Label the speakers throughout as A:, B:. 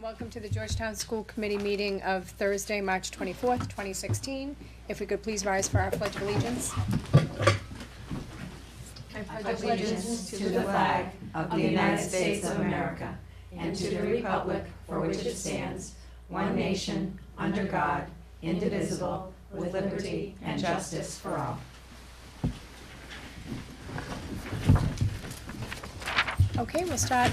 A: welcome to the Georgetown School Committee meeting of Thursday, March twenty-fourth, twenty sixteen. If we could please rise for our pledge of allegiance.
B: I pledge allegiance to the flag of the United States of America and to the republic for which it stands, one nation, under God, indivisible, with liberty and justice for all.
A: Okay, we'll start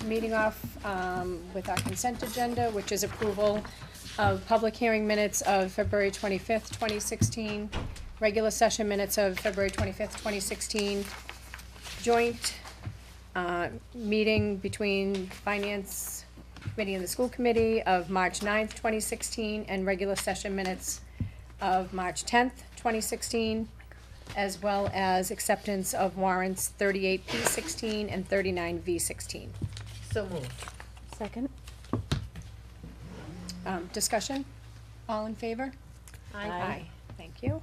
A: the meeting off um, with our consent agenda, which is approval of public hearing minutes of February twenty-fifth, twenty sixteen, regular session minutes of February twenty-fifth, twenty sixteen, joint uh, meeting between Finance Committee and the School Committee of March 9th, twenty sixteen, and regular session minutes of March tenth, twenty sixteen, as well as acceptance of warrants thirty-eight P sixteen and thirty-nine V sixteen.
C: So moved.
D: Second?
A: Um, discussion? All in favor?
C: Aye.
A: Thank you.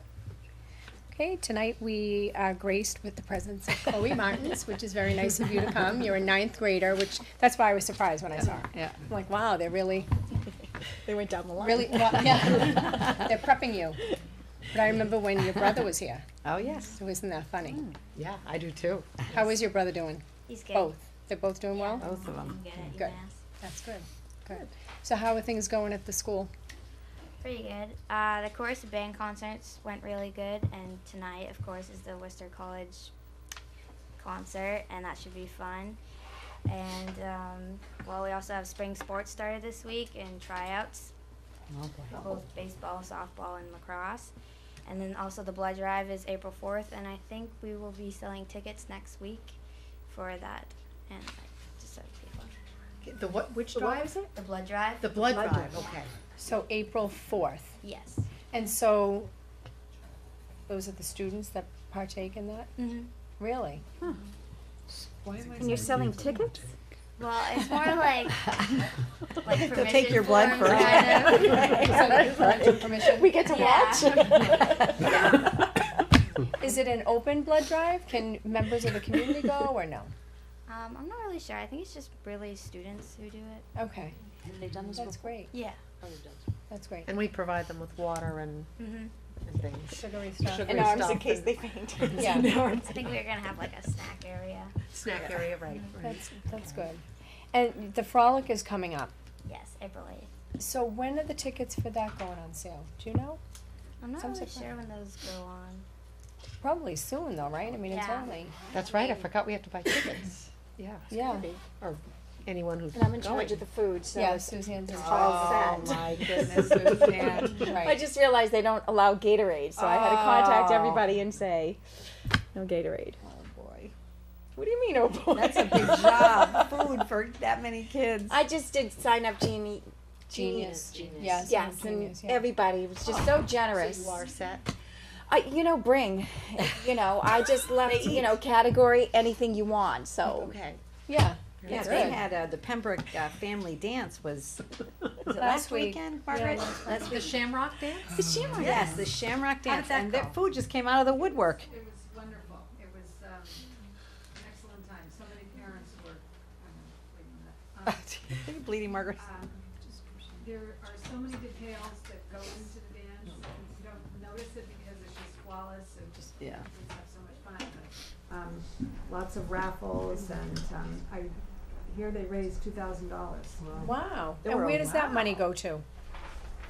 A: Okay, tonight we are graced with the presence of Chloe Martins, which is very nice of you to come. You're a ninth grader, which, that's why I was surprised when I saw her.
D: Yeah.
A: I'm like, wow, they're really,
D: They went down the line.
A: really, well, yeah, they're prepping you. But I remember when your brother was here,
D: Oh, yes.
A: so isn't that funny?
D: Hmm,
C: Yeah, I do too.
A: How is your brother doing?
E: He's good.
A: Both? They're both doing well?
D: Both of them.
E: Good at
A: Good.
E: UMass.
A: That's good, good. So how are things going at the school?
E: Pretty good. Uh, the chorus and band concerts went really good, and tonight, of course, is the Worcester College concert, and that should be fun. And um, well, we also have spring sports started this week and tryouts, for both baseball, softball, and lacrosse. And then also the blood drive is April 4th, and I think we will be selling tickets next week for that. And like, just so people,
C: The what, which drive is it?
E: the blood drive.
C: The blood drive, okay.
A: So April fourth.
E: Yes.
A: And so, those are the students that partake in that?
E: hmm
A: Really?
C: Why am I
D: And you're selling tickets?
E: Well, it's more like like
D: They'll
E: permission
D: take your blood
E: forms,
D: for it.
E: kind of.
A: Permission.
D: We get to watch?
A: Is it an open blood drive? Can members of the community go or no?
E: Um, I'm not really sure. I think it's just really students who do it.
A: Okay,
F: Have they done this
A: that's
F: before?
A: great,
E: Yeah.
A: that's great.
C: And we provide them with water and,
E: hmm
C: and things.
A: Sugary stuff.
C: Sugary
D: In arms in
C: stuff
D: case
C: and
D: they faint.
A: Yeah.
D: In arms.
E: I think we're gonna have like a snack area.
C: Snack area, right, right.
A: That's, that's good. And the frolic is coming up.
E: Yes, April eighth.
A: So when are the tickets for that going on sale? Do you know?
E: I'm not
A: Some
E: really
A: support.
E: sure when those go on.
A: Probably soon though, right? I mean, it's
E: Yeah.
A: only,
C: That's right, I forgot we have to buy tickets. Yeah,
A: yeah,
C: anyone who's
D: And I'm in charge
C: going.
D: of the food, so.
A: yeah,
D: it's-
A: Suzanne's in charge.
C: Oh,
D: all set.
C: my goodness, Suzanne.
A: Right.
D: I just realized they don't allow Gatorade, so I had to contact
C: Oh.
D: everybody and say, no Gatorade.
C: Oh, boy.
D: What do you mean, oh boy?
G: That's a big job. Food for that many kids.
D: I just did sign up Genie.
A: Genius.
F: Genius.
A: Yes,
D: Yes, and
A: genius, yeah.
D: everybody was just so generous.
C: So you are set.
D: I, you know, bring, you know, I just left, you know, category anything you want. So
C: Okay.
A: Yeah,
G: yeah,
A: that's
G: they
A: good.
G: had uh, the Pembroke uh, family dance was, was it
A: Last
G: last
A: week.
G: weekend, Margaret. Last
C: The
G: week.
C: Shamrock dance?
D: the Shamrock.
G: Yes, the Shamrock dance,
C: that
G: and their
C: go?
G: food just came out of the woodwork.
H: It was wonderful. It was um, an excellent time. So many parents were, um, wait a minute.
G: Are you bleeding, Margaret?
H: Um, um, There are so many details that go into the dance. and You don't notice it because it's just flawless and just, you
G: Yeah.
H: just have so much fun. But, um, Lots of raffles and um, I hear they raised two thousand dollars.
A: Wow.
G: There
A: and
G: were a
A: where does that
G: lot.
A: money go to?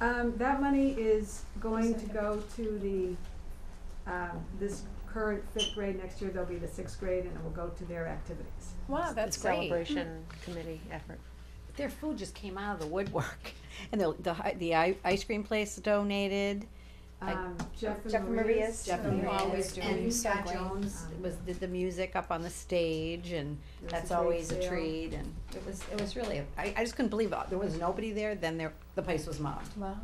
H: Um, that money is going to go to the, um, this current fifth grade, next year there'll be the sixth grade and it will go to their activities.
A: Wow, that's
C: The
A: great.
C: Celebration committee effort.
G: Their food just came out of the woodwork, and the the hi- the i- ice cream place donated. I-
H: Um, Jeff
A: Jeff and
H: and
A: Maria's.
H: Maria's.
G: Jeff
A: and
H: um,
A: Maria's.
H: always do.
A: And
H: And
A: Scott
H: Scott Jones
G: was did the music up on the stage, and
H: There was
G: that's
H: a bake
G: always um, a
H: sale.
G: treat. And it was it was really a- I, I just couldn't believe it. there was nobody there. Then there the place was mobbed.
A: Wow.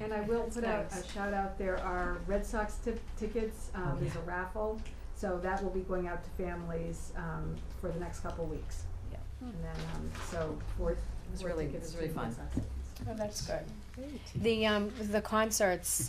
H: And I will put out
A: nice.
H: a shout out, there are Red Sox tip, tickets, um, there's a raffle, so that will be going out to families, um, for the next couple weeks.
G: Yeah.
H: And then, um, so fourth,
G: was
H: fourth
G: really-
H: tickets
G: it was
H: to
G: really
H: the Red
G: fun.
H: Sox tickets.
A: Oh, that's good. The um the concerts